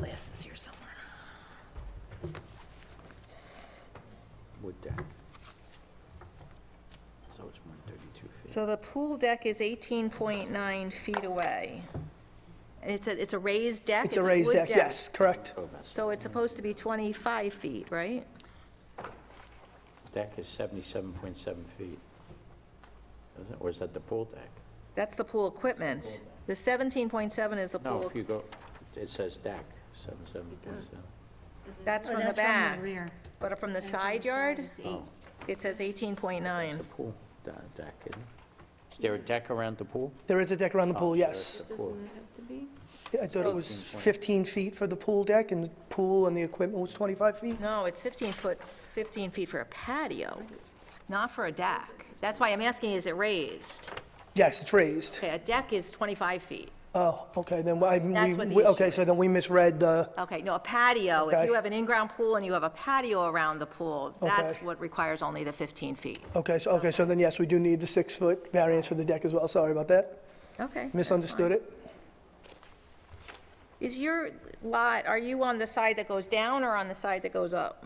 this is here somewhere. wood deck. So it's 132 feet. So the pool deck is 18.9 feet away. It's a, it's a raised deck? It's a raised wood deck, yes, correct. Oh, So it's supposed to be 25 feet, right? Deck is 77.7 feet. Isn't it? Or is that the pool deck? That's the pool equipment. The 17.7 is the No, pool, if you go, it says deck, 77.7. that's Oh, from the that's from back. the rear. But from the That's side yard, It's Oh, eight. it says it's 18.9. the pool da- deck, isn't it? Is there a deck around the pool? There is a deck around the Oh, pool, there yes. is the pool. I thought it was 15 feet for the pool deck, and the pool and the equipment was 25 feet? No, it's 15 foot, 15 feet for a patio, not for a deck. That's why I'm asking, is it raised? Yes, it's raised. Okay, a deck is 25 feet. Oh, okay, then I, That's what the we- we- okay, issue so is. then we misread the, Okay, no, a patio, if Okay. you have an in-ground pool and you have a patio around the pool, that's Okay. what requires only the 15 feet. okay, so, okay, so then yes, we do need the six-foot variance for the deck as well, sorry about that. Okay. Misunderstood it? Is your lot, are you on the side that goes down or on the side that goes up?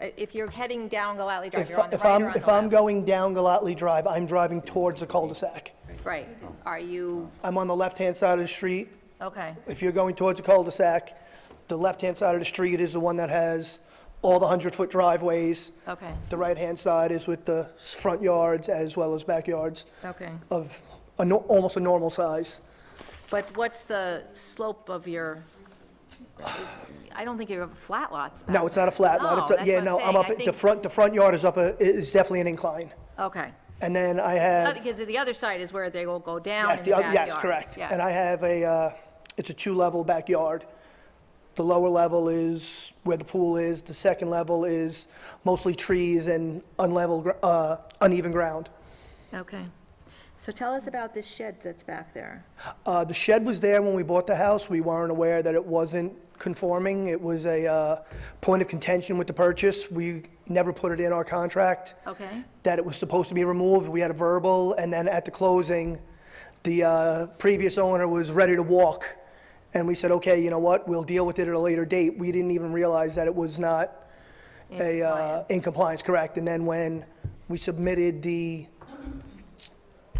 I- If you're heading down Galatly Drive, If you're on the if right I'm, or on if I'm the left? going down Galatly Drive, I'm driving towards the cul-de-sac. Right, are you, I'm on the left-hand side of the street. okay, If you're going towards the cul-de-sac, the left-hand side of the street is the one that has all the 100-foot driveways. okay, The right-hand side is with the s- front yards as well as backyards okay. of a nor- almost a normal size. But what's the slope of your, is- I don't think you have flat lots back No, it's not a flat lot. No, It's a- Oh, that's Yeah, what I'm no, saying. I'm up, I at- the think- front, the front yard is up, a- is definitely an incline. Okay. And then I Uh, have, Because the other side is where they will go down in yes, the the oth- backyard. yes, correct. And I have a, uh, it's a two-level backyard. The lower level is where the pool is. The second level is mostly trees and unlevel, gr- uh, uneven ground. Okay. So tell us about this shed that's back there. Uh, The shed was there when we bought the house. We weren't aware that it wasn't conforming. It was a uh, point of contention with the purchase. We never put it in our contract Okay, that it was supposed to be removed. We had a verbal, and then at the closing, the uh, previous owner was ready to walk. And we said, okay, you know what, we'll deal with it at a later date. We didn't even realize that it was not a, uh, in compliance, correct. And then when we submitted the,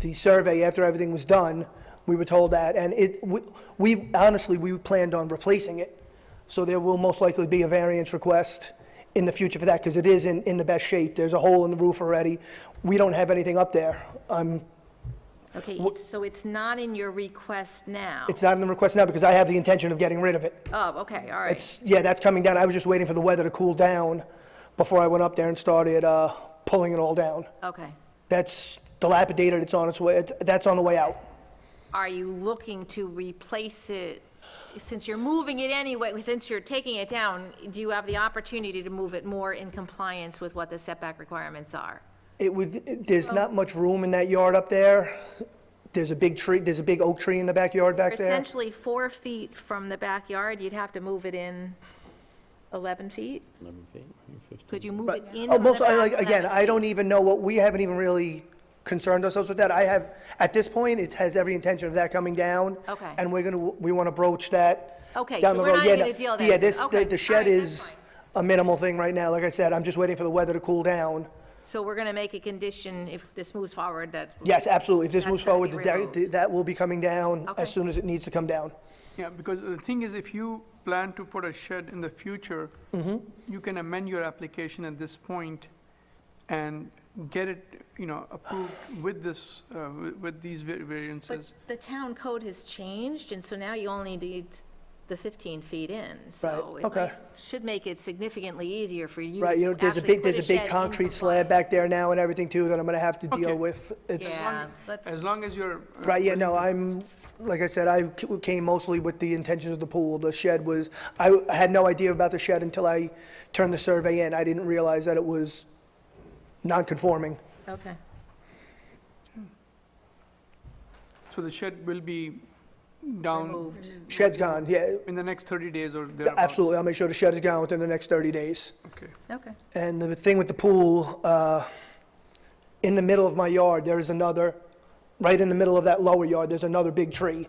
the survey after everything was done, we were told that, and it, we- we, honestly, we planned on replacing it. So there will most likely be a variance request in the future for that, because it is in, in the best shape. There's a hole in the roof already. We don't have anything up there. Um, okay, it's- so it's not in your request now? It's not in the request now, because I have the intention of getting rid of it. Oh, okay, all right, It's, yeah, that's coming down. I was just waiting for the weather to cool down before I went up there and started uh, pulling it all down. okay. That's dilapidated, it's on its way, that's on the way out. Are you looking to replace it, since you're moving it anyway, since you're taking it down, do you have the opportunity to move it more in compliance with what the setback requirements are? It would, it- there's not much room in that yard up there. There's a big tree, there's a big oak tree in the backyard back there. Essentially, four feet from the backyard, you'd have to move it in 11 feet? 11 feet, 15. Could you move But- it in Oh, from the most, I like, back again, 11 I don't feet? even know what, we haven't even really concerned ourselves with that. I have, at this point, it has every intention of that coming down. Okay. And we're gonna, we wanna broach that Okay, down so the we're road. not Yeah, gonna no- deal with Yeah, that. this, Okay, the- the all shed right, that's is fine. a minimal thing right now. Like I said, I'm just waiting for the weather to cool down. So we're going to make a condition, if this moves forward, that, Yes, absolutely. If this That's moves gotta forward, be the deck- removed. the- that will be coming down Okay. as soon as it needs to come down. Yeah, because the thing is, if you plan to put a shed in the future, Mm-hmm. you can amend your application at this point and get it, you know, approved with this, uh, wi- with these va- but variances. the town code has changed, and so now you only need the 15 feet in. So Right, it okay. might- should make it significantly easier for you Right, you know, to there's a actually big, put there's a big shed in concrete slab compliance. back there now and everything too that I'm gonna have to deal Okay. with. It's, Yeah, let's. As long as you're. uh, right, yeah, willing no, to- I'm, like I said, I c- came mostly with the intentions of the pool. The shed was, I I had no idea about the shed until I turned the survey in. I didn't realize that it was non-conforming. Okay. So the shed will be down Removed. Shed's gone, yeah, in the next 30 days or thereabouts. absolutely. I'll make sure the shed is gone within the next 30 days. Okay. Okay. And the thing with the pool, uh, in the middle of my yard, there is another, right in the middle of that lower yard, there's another big tree.